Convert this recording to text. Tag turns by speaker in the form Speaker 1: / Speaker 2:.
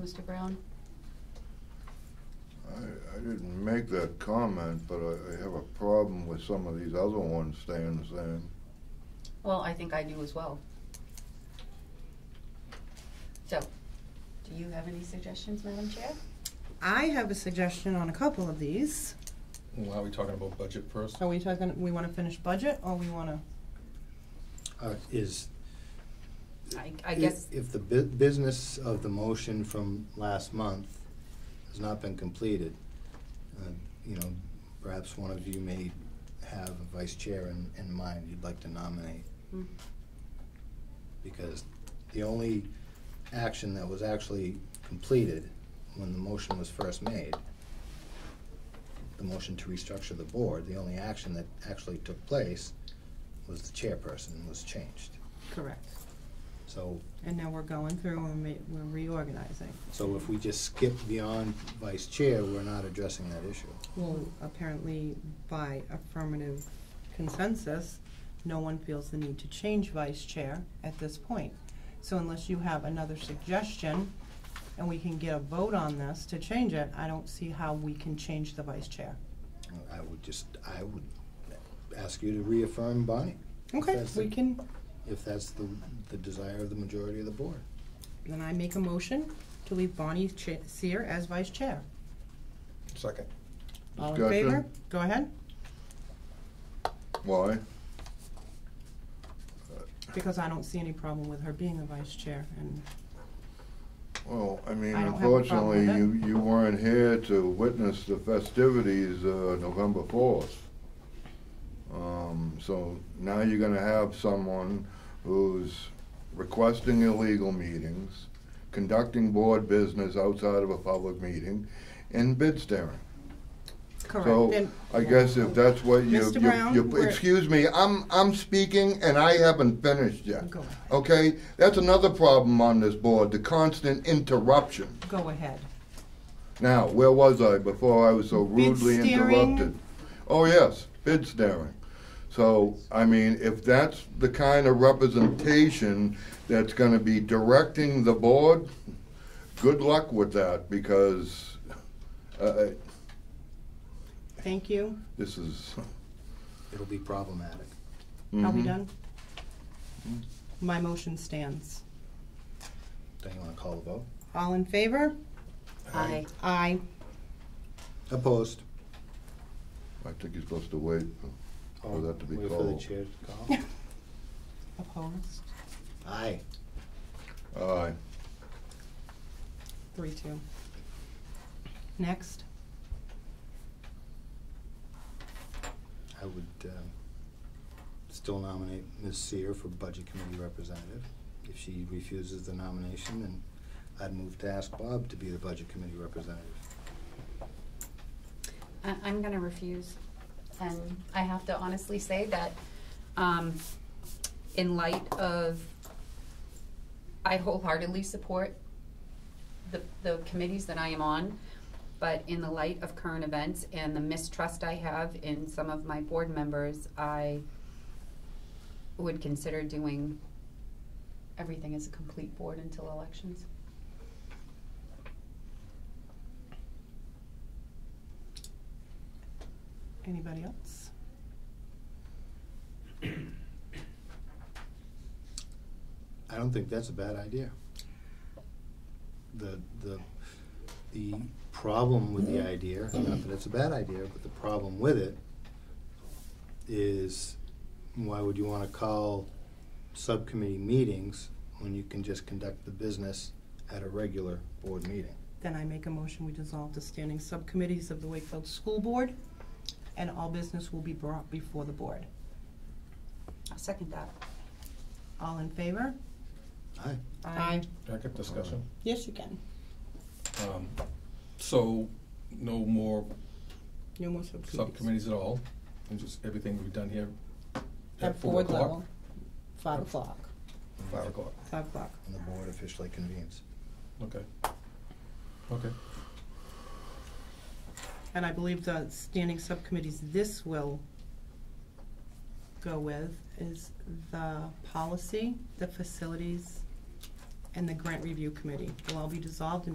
Speaker 1: Mr. Brown?
Speaker 2: I, I didn't make that comment, but I, I have a problem with some of these other ones staying the same.
Speaker 1: Well, I think I do as well. So, do you have any suggestions, Madam Chair?
Speaker 3: I have a suggestion on a couple of these.
Speaker 4: Well, are we talking about budget first?
Speaker 3: Are we talking, we wanna finish budget or we wanna,
Speaker 5: Uh, Is.
Speaker 1: I, I
Speaker 5: if-
Speaker 1: guess,
Speaker 5: If the bu- business of the motion from last month has not been completed, uh, you know, perhaps one of you may have a vice chair in, in mind you'd like to nominate.
Speaker 1: Hmm.
Speaker 5: Because the only action that was actually completed when the motion was first made, the motion to restructure the board, the only action that actually took place was the chairperson was changed.
Speaker 3: correct,
Speaker 5: So
Speaker 3: and now we're going through and ma- we're reorganizing.
Speaker 5: So if we just skip beyond vice chair, we're not addressing that issue.
Speaker 3: Well, apparently by affirmative consensus, no one feels the need to change vice chair at this point. So unless you have another suggestion and we can get a vote on this to change it, I don't see how we can change the vice chair.
Speaker 5: I would just, I would ask you to reaffirm Bonnie,
Speaker 3: Okay,
Speaker 5: That's
Speaker 3: we
Speaker 5: it.
Speaker 3: can,
Speaker 5: if that's the, the desire of the majority of the board.
Speaker 3: then I make a motion to leave Bonnie Cha- Seer as vice chair.
Speaker 4: Second.
Speaker 3: All in
Speaker 2: Discussion?
Speaker 3: favor? Go ahead,
Speaker 2: Why?
Speaker 3: because I don't see any problem with her being the vice chair and
Speaker 2: Well, I mean,
Speaker 3: I don't have a problem with
Speaker 2: unfortunately, you, you weren't here to witness the festivities, uh, November fourth. Um, so now you're gonna have someone who's requesting illegal meetings, conducting board business outside of a public meeting, and bid staring.
Speaker 3: correct.
Speaker 2: So,
Speaker 3: And-
Speaker 2: I guess if that's what you,
Speaker 3: Mr. Brown,
Speaker 2: you, you,
Speaker 3: we're-
Speaker 2: excuse me, I'm, I'm speaking and I haven't finished yet.
Speaker 3: Go ahead.
Speaker 2: Okay, that's another problem on this board, the constant interruption.
Speaker 3: Go ahead.
Speaker 2: Now, where was I before I was so rudely
Speaker 3: Bid staring.
Speaker 2: interrupted? Oh, yes, bid staring. So, I mean, if that's the kind of representation that's gonna be directing the board, good luck with that, because, uh,
Speaker 3: Thank you.
Speaker 2: this is.
Speaker 5: It'll be problematic.
Speaker 3: Are we
Speaker 2: Mhm.
Speaker 3: done? My motion stands.
Speaker 5: Don't you wanna call the vote?
Speaker 3: All in favor?
Speaker 1: I,
Speaker 3: Aye.
Speaker 5: Opposed?
Speaker 2: I think you're supposed to wait.
Speaker 5: Or
Speaker 2: that to be
Speaker 5: Wait for the
Speaker 2: called.
Speaker 5: chair to call.
Speaker 3: Opposed?
Speaker 5: Aye.
Speaker 2: Aye.
Speaker 3: Three, two. Next.
Speaker 5: I would, um, still nominate Ms. Seer for Budget Committee Representative. If she refuses the nomination, then I'd move to ask Bob to be the Budget Committee Representative.
Speaker 1: I, I'm gonna refuse. And I have to honestly say that, um, in light of, I wholeheartedly support the, the committees that I am on, but in the light of current events and the mistrust I have in some of my board members, I would consider doing everything as a complete board until elections.
Speaker 3: Anybody else?
Speaker 5: I don't think that's a bad idea. The, the, the problem with the idea, not that it's a bad idea, but the problem with it is why would you wanna call subcommittee meetings when you can just conduct the business at a regular board meeting?
Speaker 3: Then I make a motion, we dissolve the standing subcommittees of the Wakefield School Board, and all business will be brought before the board.
Speaker 1: I second that.
Speaker 3: All in favor?
Speaker 5: Aye.
Speaker 4: Second discussion.
Speaker 3: Yes, you can.
Speaker 4: Um, So, no more
Speaker 3: No more subcommittees.
Speaker 4: subcommittees at all, and just everything will be done here
Speaker 3: At
Speaker 4: at four
Speaker 3: board
Speaker 4: o'clock?
Speaker 3: level, five o'clock,
Speaker 4: Five o'clock,
Speaker 3: five o'clock.
Speaker 5: And the board officially convenes.
Speaker 4: okay. Okay,
Speaker 3: And I believe the standing subcommittees this will go with is the policy, the facilities, and the grant review committee will all be dissolved and